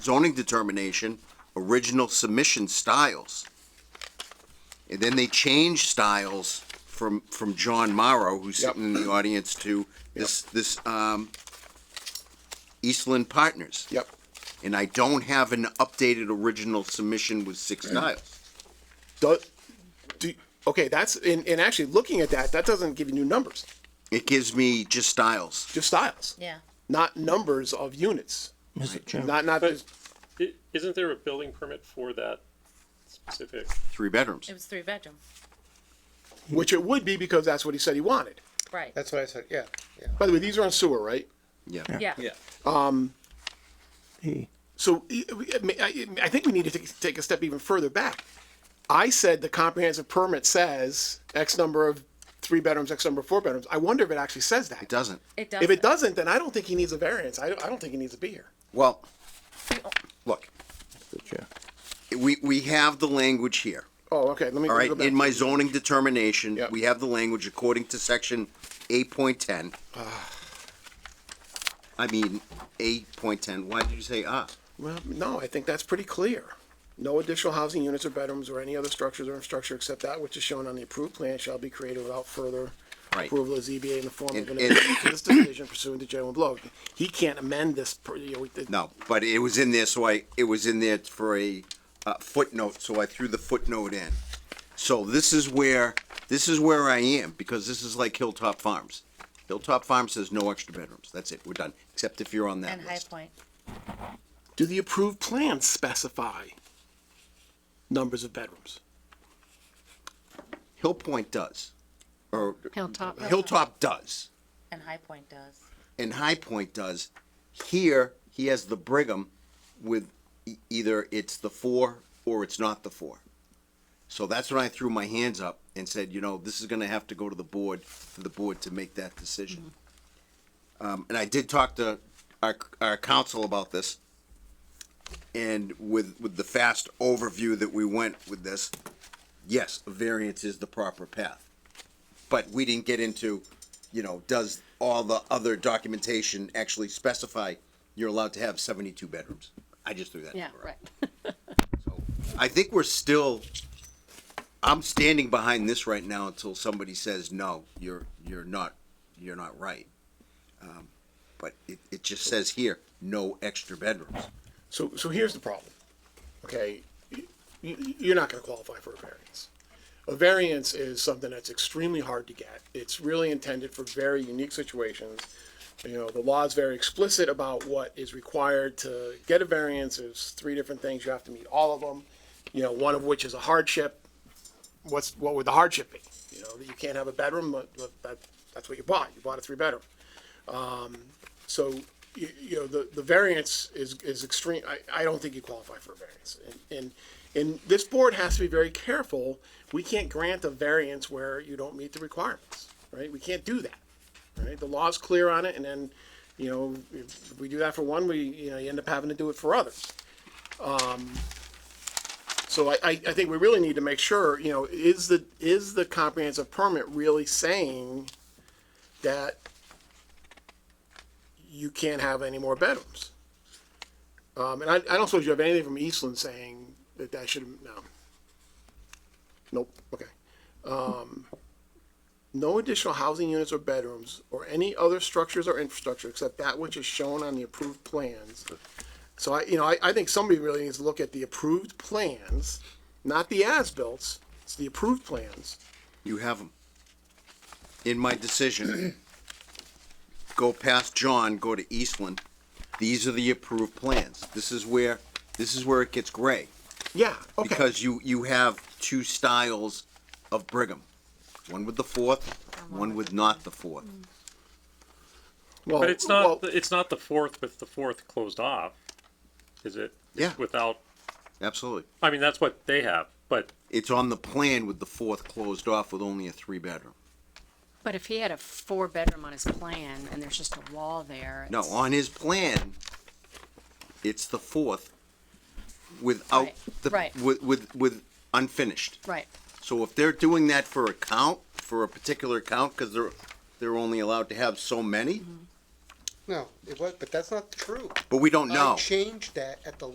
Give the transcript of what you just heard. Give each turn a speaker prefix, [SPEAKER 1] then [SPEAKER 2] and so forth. [SPEAKER 1] zoning determination, original submission styles. And then they changed styles from, from John Morrow, who's
[SPEAKER 2] Yep.
[SPEAKER 1] sitting in the audience, to this, this, um, Eastland Partners.
[SPEAKER 2] Yep.
[SPEAKER 1] And I don't have an updated original submission with six styles.
[SPEAKER 2] Do, do, okay, that's, and, and actually looking at that, that doesn't give you new numbers,
[SPEAKER 1] It gives me just styles.
[SPEAKER 2] just styles,
[SPEAKER 3] Yeah.
[SPEAKER 2] not numbers of units.
[SPEAKER 4] Mr. Chairman,
[SPEAKER 2] Not, not, just-
[SPEAKER 5] I- Isn't there a building permit for that specific?
[SPEAKER 1] Three bedrooms.
[SPEAKER 3] It was three bedroom.
[SPEAKER 2] which it would be because that's what he said he wanted.
[SPEAKER 3] Right.
[SPEAKER 6] That's what I said, yeah, yeah.
[SPEAKER 2] By the way, these are on sewer, right?
[SPEAKER 1] Yeah.
[SPEAKER 3] yeah.
[SPEAKER 4] he,
[SPEAKER 2] So e, I- I I think we need to take- take a step even further back. I said the comprehensive permit says X number of three bedrooms, X number of four bedrooms. I wonder if it actually says
[SPEAKER 1] It
[SPEAKER 2] that.
[SPEAKER 1] doesn't.
[SPEAKER 3] It does.
[SPEAKER 2] If it doesn't, then I don't think he needs a variance. I don't, I don't think he needs to be here.
[SPEAKER 1] Well, look,
[SPEAKER 4] Mr. Chair.
[SPEAKER 1] we, we have the language here.
[SPEAKER 2] Oh, okay, let me.
[SPEAKER 1] All
[SPEAKER 2] let me
[SPEAKER 1] right,
[SPEAKER 2] go back.
[SPEAKER 1] in my zoning determination,
[SPEAKER 2] Yep.
[SPEAKER 1] we have the language according to section eight point ten.
[SPEAKER 2] Ah.
[SPEAKER 1] I mean, eight point ten, why did you say ah?
[SPEAKER 2] Well, no, I think that's pretty clear. No additional housing units or bedrooms or any other structures or infrastructure except that which is shown on the approved plan shall be created without further
[SPEAKER 1] Right.
[SPEAKER 2] approval of ZBA in the form of
[SPEAKER 1] And-
[SPEAKER 2] an
[SPEAKER 1] and-
[SPEAKER 2] amendment to this decision pursuant to general law. He can't amend this, per- you know, we-
[SPEAKER 1] No, but it was in there, so I, it was in there for a uh, footnote, so I threw the footnote in. So this is where, this is where I am, because this is like Hilltop Farms. Hilltop Farms says no extra bedrooms, that's it, we're done, except if you're on that
[SPEAKER 3] and High
[SPEAKER 1] list.
[SPEAKER 3] Point.
[SPEAKER 2] Do the approved plans specify numbers of bedrooms?
[SPEAKER 1] Hill Point does, or
[SPEAKER 3] Hilltop.
[SPEAKER 1] Hilltop does.
[SPEAKER 3] And High Point does.
[SPEAKER 1] and High Point does. Here, he has the Brigham with e- either it's the four or it's not the four. So that's when I threw my hands up and said, you know, this is gonna have to go to the board, for the board to make that decision. Um, and I did talk to our, our council about this. And with, with the fast overview that we went with this, yes, a variance is the proper path. But we didn't get into, you know, does all the other documentation actually specify you're allowed to have seventy-two bedrooms? I just threw that number out. So, I think we're still, I'm standing behind this right now until somebody says, no, you're, you're not, you're not right. Um, But it, it just says here, no extra bedrooms.
[SPEAKER 2] So, so here's the problem, okay? You, you're not gonna qualify for a variance. A variance is something that's extremely hard to get. It's really intended for very unique situations. You know, the law is very explicit about what is required to get a variance. There's three different things. You have to meet all of them. You know, one of which is a hardship. What's, what would the hardship be? You know, that you can't have a bedroom, but, but that, that's what you bought. You bought a three bedroom. So, you, you know, the, the variance is, is extreme, I, I don't think you qualify for a variance. And, and, and this board has to be very careful, we can't grant a variance where you don't meet the requirements, right? We can't do that, right? The law's clear on it, and then, you know, if we do that for one, we, you know, you end up having to do it for others. Um, So I, I, I think we really need to make sure, you know, is the, is the comprehensive permit really saying that you can't have any more bedrooms? Um, and I, I don't suppose you have anything from Eastland saying that that should, no. Nope, okay. Um, no additional housing units or bedrooms or any other structures or infrastructure except that which is shown on the approved plans. So I, you know, I, I think somebody really needs to look at the approved plans, not the as-bills, it's the approved plans.
[SPEAKER 1] You have them. In my decision, go past John, go to Eastland. These are the approved plans. This is where, this is where it gets gray.
[SPEAKER 2] Yeah, okay,
[SPEAKER 1] Because you, you have two styles of Brigham. One with the fourth, one with not the fourth.
[SPEAKER 2] well,
[SPEAKER 5] But it's
[SPEAKER 2] Oh, well,
[SPEAKER 5] not, it's not the fourth with the fourth closed off, is it? It's
[SPEAKER 1] Yeah.
[SPEAKER 5] Without,
[SPEAKER 1] Absolutely.
[SPEAKER 5] I mean, that's what they have, but
[SPEAKER 1] It's on the plan with the fourth closed off with only a three bedroom.
[SPEAKER 7] But if he had a four bedroom on his plan and there's just a wall there.
[SPEAKER 1] No,
[SPEAKER 7] it's-
[SPEAKER 1] on his plan, it's the fourth without
[SPEAKER 7] Right,
[SPEAKER 1] the,
[SPEAKER 7] right.
[SPEAKER 1] with, with, with unfinished.
[SPEAKER 7] Right,
[SPEAKER 1] So if they're doing that for a count, for a particular count, because they're, they're only allowed to have so many,
[SPEAKER 7] Mm-hmm.
[SPEAKER 6] No, it was, but that's not true.
[SPEAKER 1] but we don't know.
[SPEAKER 6] I changed that at the